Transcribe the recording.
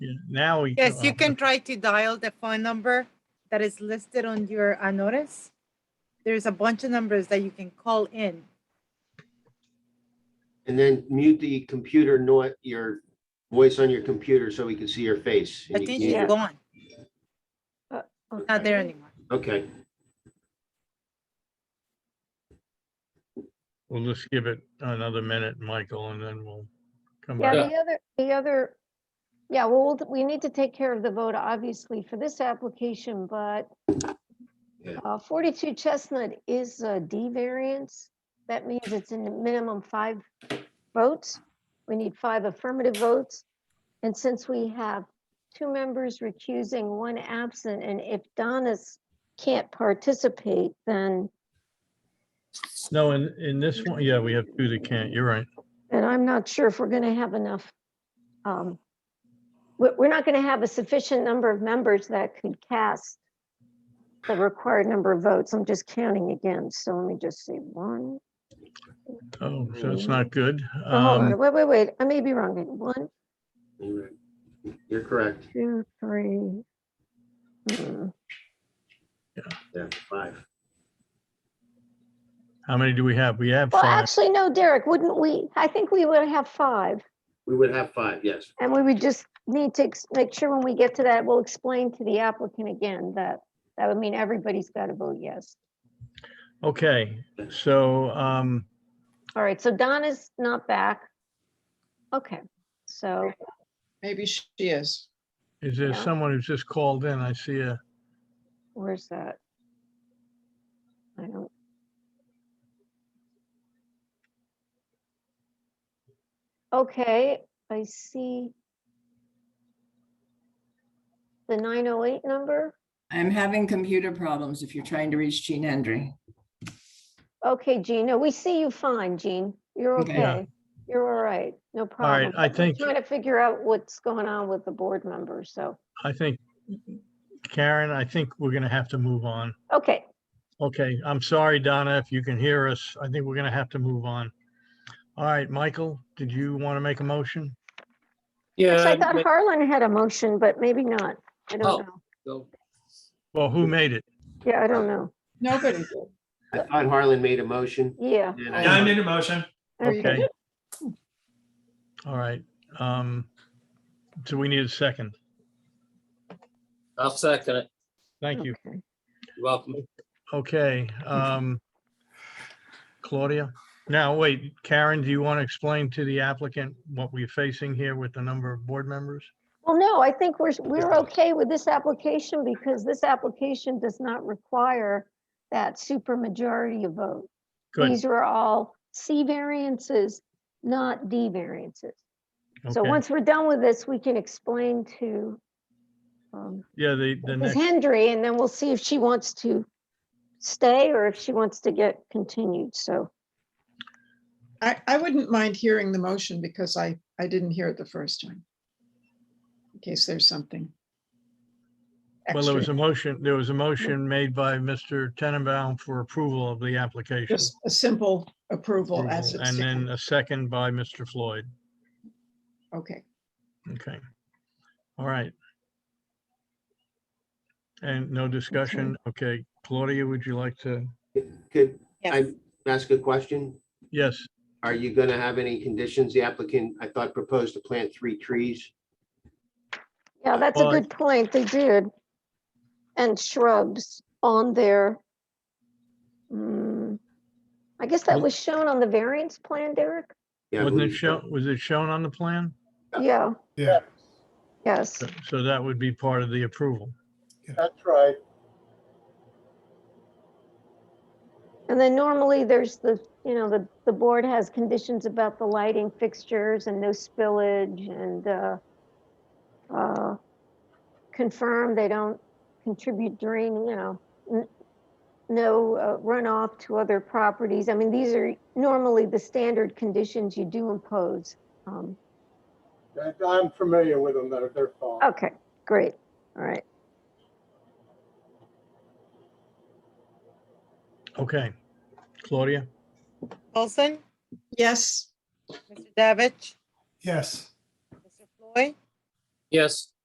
Yeah, Now we. uh, Yes, you can try to dial the phone number that is listed on your uh, notice. There's a bunch of numbers that you can call in. And then mute the computer, not your voice on your computer so we can see your face. I And you think can't- she's Yeah. gone, not Okay. there anymore. Okay, We'll just give it another minute, Michael, and then we'll come Yeah, back. the other, the other, yeah, well, we'll- we need to take care of the vote, obviously, for this application, but Yeah. uh, 42 Chestnut is a D variance. That means it's in the minimum five votes. We need five affirmative votes. And since we have two members recusing, one absent, and if Donis can't participate, then, No, in, in this one, yeah, we have two that can't. You're right. then I'm not sure if we're going to have enough. um, We're, we're not going to have a sufficient number of members that could cast the required number of votes. I'm just counting again, so let me just see, one, Oh, so that's not good. oh, hold on, Um, wait, wait, wait, I may be wrong. One, you're right. You're correct. two, three. Hmm, Yeah, five. How many do we have? We have Well, five. actually, no, Derek, wouldn't we? I think we would have five. We would have five, yes. And we would just need to ex- make sure when we get to that, we'll explain to the applicant again that that would mean everybody's got to vote yes. Okay, so, um, All right, so Donna's not back. Okay, so, Maybe she is. is there Yeah. someone who's just called in? I see a, where's that? I don't. Okay, I see. The 908 number? I'm having computer problems if you're trying to reach Gene Hendry. Okay, Jean, no, we see you fine, Jean. You're Okay. Yeah. okay. You're all right, no problem. I I'm think- Trying to figure out what's going on with the board members, so, I think, Karen, I think we're gonna have to move on. okay. Okay, I'm sorry, Donna, if you can hear us. I think we're gonna have to move on. All right, Michael, did you want to make a motion? Actually, I Yeah. thought Harlan had a motion, but maybe not. I Oh. don't know. so- Well, who made it? Yeah, I don't know. Nobody did. I thought Harlan made a motion. Yeah. and Yeah, I made a motion. Okay. All right, um, so we need a second. I'll second it. Thank you. Okay. You're Welcome. Okay, um, Claudia, now wait, Karen, do you want to explain to the applicant what we're facing here with the number of board members? Well, no, I think we're, we're okay with this application because this application does not require that super majority of vote. Good, These were all C variances, not D variances. So okay, once we're done with this, we can explain to um, yeah, the, the Ms. next. Hendry, and then we'll see if she wants to stay or if she wants to get continued. So, I, I wouldn't mind hearing the motion because I, I didn't hear it the first time. In case there's something. Well, there was extra. a motion, there was a motion made by Mr. Tenenbaum for approval of the application. Just a simple approval as approval, it's. And then a second by Mr. Floyd. Okay, Okay. All right. And no discussion. Okay, Claudia, would you like to? Could Yes. I ask a question? Yes, Are you going to have any conditions? The applicant, I thought, proposed to plant three trees. yeah, that's a Well, I- good point. They did. And shrubs on their. mm, I guess that Well- was shown on the variance plan, Derek? Yeah, I wasn't it believe so. shown, was it shown on the plan? Yeah. Yeah. Yes, So- So that would be part of the approval. That's right. and then normally there's the, you know, the, the board has conditions about the lighting fixtures and no spillage and, uh, uh, confirm they don't contribute drain, you know, n- no uh, runoff to other properties. I mean, these are normally the standard conditions you do impose. Um, That- I'm familiar with them, they're, they're fine. okay, great, all right. Okay. Claudia? Olson, yes, Mr. Davich, Yes. Mr. Floyd, Yes.